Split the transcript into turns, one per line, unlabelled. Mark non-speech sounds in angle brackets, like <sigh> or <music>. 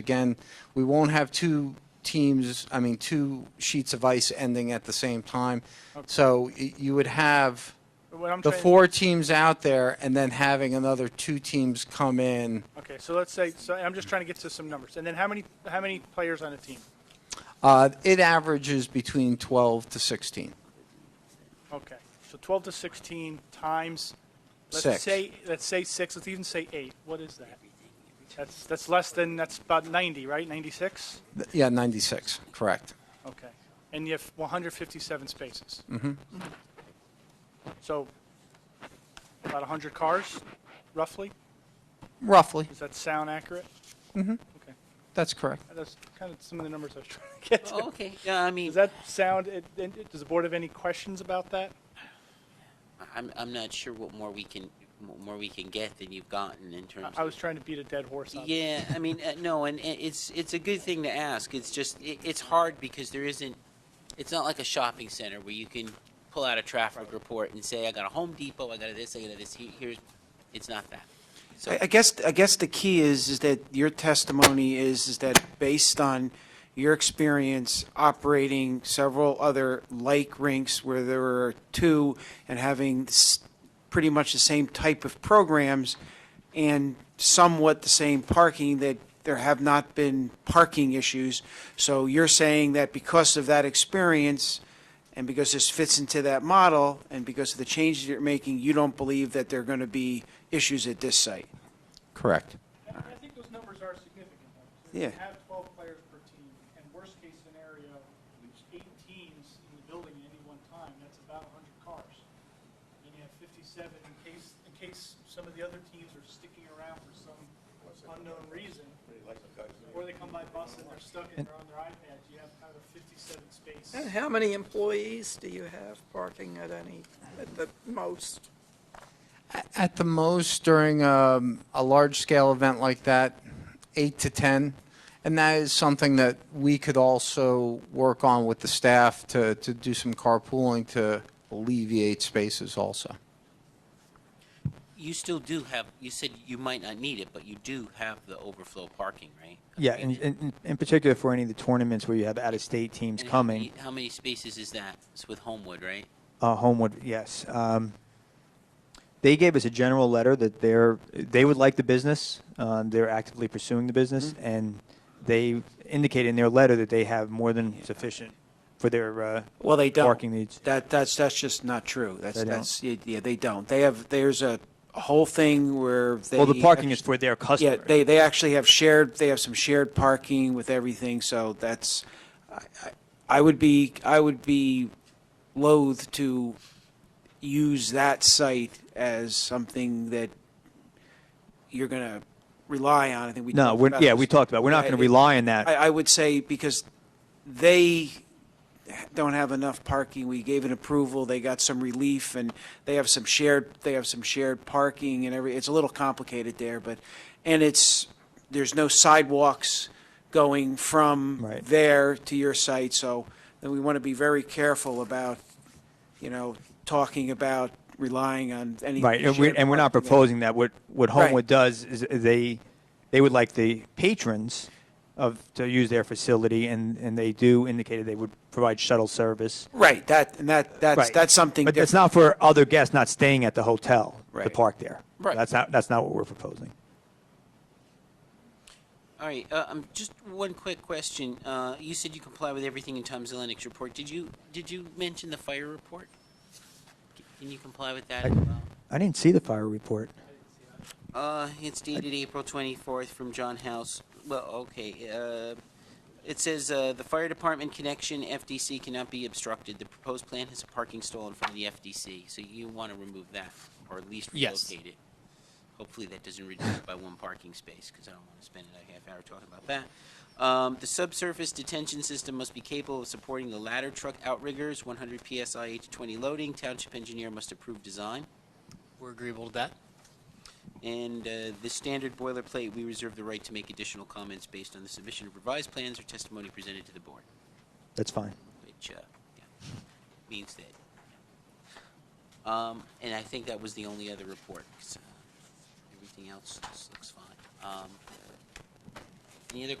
Again, we won't have two teams, I mean, two sheets of ice ending at the same time. So y- you would have
What I'm
the
trying-
four teams out there and then having another two teams come in.
Okay, so let's say, so I'm just trying to get to some numbers. And then how many, how many players on a team?
Uh, It averages between 12 to 16.
Okay, so 12 to 16 times,
Six.
let's say, let's say six, let's even say eight. What is that? That's, that's less than, that's about 90, right? 96?
Th- Yeah, 96, correct.
Okay. And you have 157 spaces. Mm-hmm. So about 100 cars, roughly?
Roughly,
Does that sound accurate? Mm-hmm. Okay,
that's correct.
that's kind of some of the numbers I was trying to
<laughs>
get to.
Oh, Okay, yeah, I mean,
Does that sound, it- it- does the board have any questions about that?
I'm, I'm not sure what more we can, what more we can get than you've gotten in terms
I-
of.
I was trying to beat a dead horse on it.
Yeah, I mean, uh, no, and i- it's, it's a good thing to ask. It's just, it, it's hard because there isn't, it's not like a shopping center where you can pull out a traffic report and say, I got a Home Depot, I got a this, I got a this, here- here's, it's not that. So,
I I guess, I guess the key is, is that your testimony is, is that based on your experience operating several other like rinks where there were two and having s- pretty much the same type of programs and somewhat the same parking, that there have not been parking issues. So you're saying that because of that experience and because this fits into that model and because of the changes you're making, you don't believe that there are going to be issues at this site?
Correct.
I think those numbers are significant.
you Yeah.
have 12 players per team, and worst-case scenario, eight teams in the building at any one time, that's about 100 cars. Then you have 57 in case, in case some of the other teams are sticking around for some unknown reason. Or they come by bus and they're stuck and they're on their iPads, you have kind of 57 space.
And how many employees do you have parking at any, at the most?
At the most, during um, a large-scale event like that, eight to 10. And that is something that we could also work on with the staff to, to do some carpooling to alleviate spaces also.
you still do have, you said you might not need it, but you do have the overflow parking, right?
Yeah,
I
and,
mean,
and and in particular for any of the tournaments where you have out-of-state teams
and how
coming,
many- How many spaces is that? It's with Homewood, right?
uh, Homewood, yes. Um, they gave us a general letter that they're they would like the business. Um, they're actively pursuing the business,
Mm-hmm.
and they indicated in their letter that they have more than sufficient for their uh,
Well, they don't.
parking needs.
That, that's, that's just not true. That's,
They don't.
that's, yeah, yeah, they don't. They have, there's a a whole thing where they.
well, the parking
have-
is for their
Yeah,
customers.
they, they actually have shared, they have some shared parking with everything, so that's, I- I- I would be, I would be loath to use that site as something that you're going to rely on. I think we.
no,
talked
we're,
about
yeah,
this.
we talked about. We're not going to
I-
rely on that.
I, I would say because they don't have enough parking. We gave an approval, they got some relief, and they have some shared, they have some shared parking and every, it's a little complicated there, but, and it's, there's no sidewalks going from
Right.
there to your site, so then we want to be very careful about, you know, talking about relying on any.
Right, and we're,
shared
and we're not
parking.
proposing that. What, what
Right.
Homewood does is they, they would like the patrons of, to use their facility, and, and they do indicate that they would provide shuttle service.
Right, that, and that, that's,
Right.
that's something
But that's
different.
not for other guests not staying at the hotel to
Right.
park there.
Right.
That's not, that's not what we're proposing.
All right, uh, um, just one quick question. Uh, you said you comply with everything in Tom Zelenik's report. Did you, did you mention the fire report? C- Can you comply with that as well?
I didn't see the fire report.
Uh, it's dated April 24th from John House. Well, okay. Uh, it says uh, the fire department connection FDC cannot be obstructed. The proposed plan has a parking stall in front of the FDC, so you want to remove that or at least
Yes.
relocate it. Hopefully, that doesn't reduce it by one parking space because I don't want to spend another half hour talking about that. Um, the subsurface detention system must be capable of supporting the ladder truck outriggers, 100 psi H20 loading. Township engineer must approve design.
We're agreeable to that.
And uh, the standard boilerplate, we reserve the right to make additional comments based on the submission of revised plans or testimony presented to the board,
That's fine.
which uh, yeah, means that. Um, And I think that was the only other report. 'cause, uh, Everything else just looks fine. Um, Any other